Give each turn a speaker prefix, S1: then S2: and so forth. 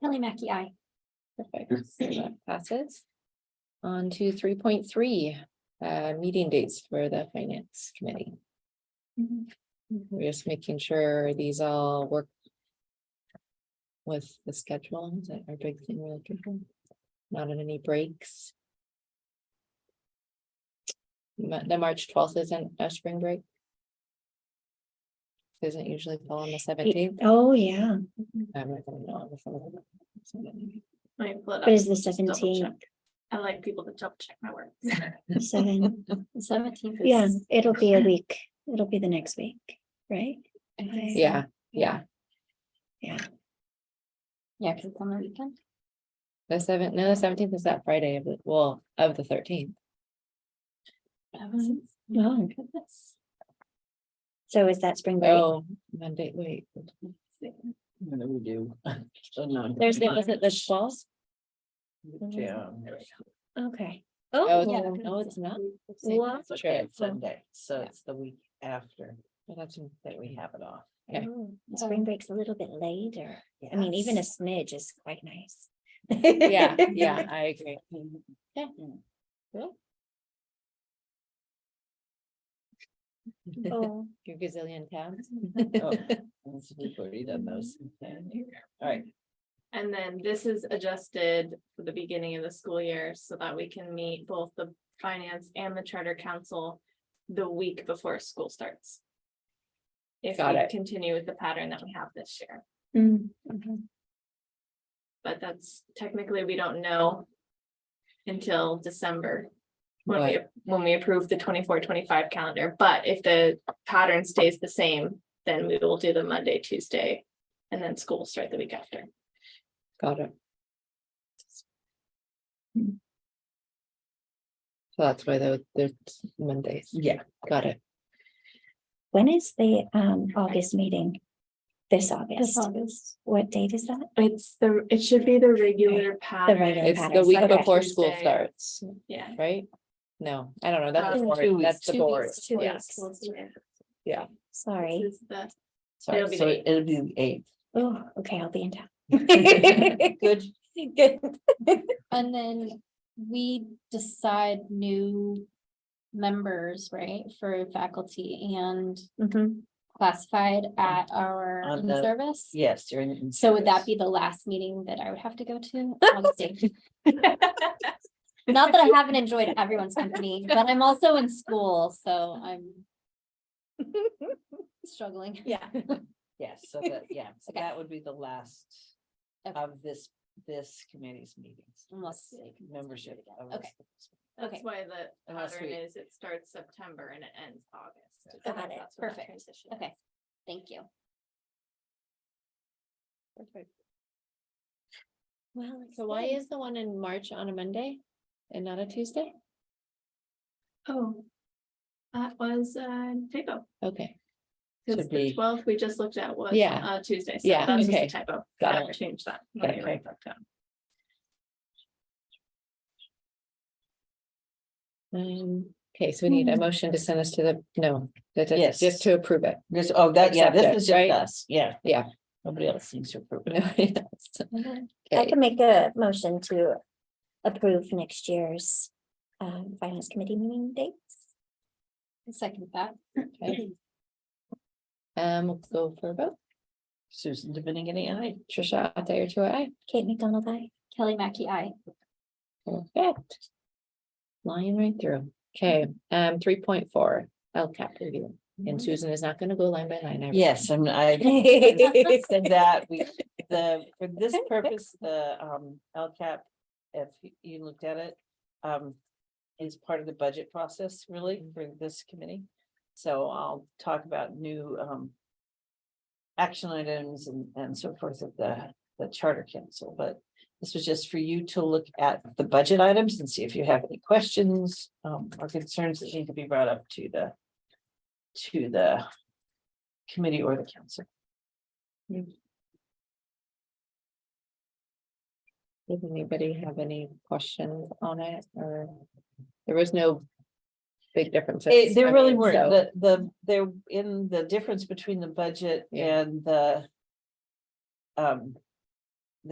S1: Kelly Mackey, I.
S2: Perfect, so that passes. On to three point three, uh, meeting dates for the finance committee. We're just making sure these all work. With the schedule, is that our big thing we're looking for? Not in any breaks. Ma- The March twelfth isn't a spring break. Doesn't usually fall on the seventeenth.
S1: Oh, yeah,
S2: I'm not gonna know. before the 17th.
S3: Let me pull it
S1: but
S3: up.
S1: it's the
S3: double
S1: seventeenth,
S3: check. I like people to double check my work.
S1: seven,
S3: Seventeenth.
S1: yeah, it'll be a week, it'll be the next week, right?
S2: Yeah, yeah,
S3: yeah, because it's on the weekend.
S2: the seventh, no, the seventeenth is that Friday of the, well, of the thirteenth.
S1: Oh. So is that spring break?
S2: Oh, Monday, wait.
S4: What do we do? So no.
S2: Thursday, was it the twelfth?
S4: Yeah.
S1: Okay.
S2: Oh,
S1: yeah,
S2: no, no, it's not. Well,
S4: It's
S2: Sure.
S4: okay, it's Sunday, so
S2: Yeah.
S4: it's the week after
S2: that's-
S4: that we have it off.
S2: Okay.
S1: Oh, Spring break's a little bit later, I mean, even a
S4: Yes.
S1: smidge is quite nice.
S2: Yeah, yeah, I agree.
S1: Oh.
S2: Your gazillion tabs.
S4: Oh, once We've already done those. All right,
S3: And then this is adjusted for the beginning of the school year so that we can meet both the finance and the charter council the week before school starts. If
S2: Got
S3: we
S2: it.
S3: continue with the pattern that we have this year,
S1: Mm, okay.
S3: but that's technically, we don't know until December. When we,
S2: Right.
S3: when we approve the 24-25 calendar, but if the pattern stays the same, then we will do the Monday, Tuesday. And then school will start the week after.
S2: Got it. So that's why they're, they're Mondays.
S4: yeah,
S2: Got it.
S1: When is the um August meeting? This August,
S3: August.
S1: what date is that?
S3: It's the, it should be the regular
S1: regular
S3: pattern,
S2: It's the
S1: patterns,
S2: week
S1: okay.
S2: before school
S3: Tuesday.
S2: starts,
S3: yeah.
S2: right? No, I don't know. That's the
S3: Um,
S4: two
S2: board.
S4: weeks.
S2: That's the
S1: Two
S2: board.
S1: weeks, Two
S3: Yeah.
S1: weeks,
S2: Yeah.
S1: sorry.
S3: This is the-
S2: Sorry.
S3: It'll be
S4: so
S3: the eighth.
S4: it'll be the eighth.
S1: Oh, okay, I'll be in town.
S2: Good.
S1: Good.
S5: And then we decide new members, right, for faculty and
S1: Mhm.
S5: classified at our
S4: On the-
S5: service.
S4: Yes, during. in
S5: So would that
S4: service.
S5: be the last meeting that I would have to go to? Honestly. Not that I haven't enjoyed everyone's company, but I'm also in school, so I'm struggling.
S1: Yeah.
S4: Yes, so that, yeah, so
S5: Okay.
S4: that would be the last
S5: Okay.
S4: of this, this committee's meetings.
S5: Unless they can-
S4: Membership. of
S5: Okay.
S4: this-
S3: That's
S5: Okay,
S3: why the
S4: Unless
S3: pattern
S4: we-
S3: is it starts September and it ends August.
S5: Got
S3: That's
S5: it.
S3: what that
S5: Perfect.
S3: transition is.
S5: okay, thank you.
S1: Well.
S2: So why is the one in March on a Monday and not a Tuesday?
S3: Oh. That was uh typo,
S2: Okay,
S3: because
S4: Should
S3: the
S4: be-
S3: twelfth we just looked at was
S2: Yeah.
S3: uh Tuesday, so
S2: Yeah,
S3: that's just
S2: okay.
S3: a typo.
S2: Got
S3: I
S2: it.
S3: Change that.
S2: Got
S3: Let me
S2: it.
S3: write that down.
S2: um, okay, so we need a motion to send us to the, no, that- that's
S4: Yes.
S2: just to approve it.
S4: This, oh, that, yeah,
S2: Accept
S4: this
S2: it,
S4: is
S2: right?
S4: just us, yeah.
S2: Yeah.
S4: Nobody else seems to approve. it.
S1: I
S2: Okay,
S1: can make a motion to approve next year's um finance committee meeting dates.
S5: Second that.
S2: um, we'll go for a vote.
S4: Susan Dominican, aye.
S2: Trisha, I'll tell you two I,
S1: Kate McDonald, I.
S5: Kelly Mackey, I.
S2: perfect. Flying right through. Okay, um, three point four, LCAP review. And Susan is not gonna go line by line. I-
S4: Yes, and I said that we, the, for this purpose, the um LCAP, if you- you looked at it, um, is part of the budget process really for this committee. So I'll talk about new um action items and and so forth of the the charter council, but this was just for you to look at the budget items and see if you have any questions um or concerns that need to be brought up to the to the committee or the council.
S2: Does anybody have any questions on it or? There was no big differences.
S4: It, there
S2: I
S4: really
S2: mean,
S4: were,
S2: so-
S4: the, the, there, in the difference between the budget
S2: Yeah.
S4: and the. Um,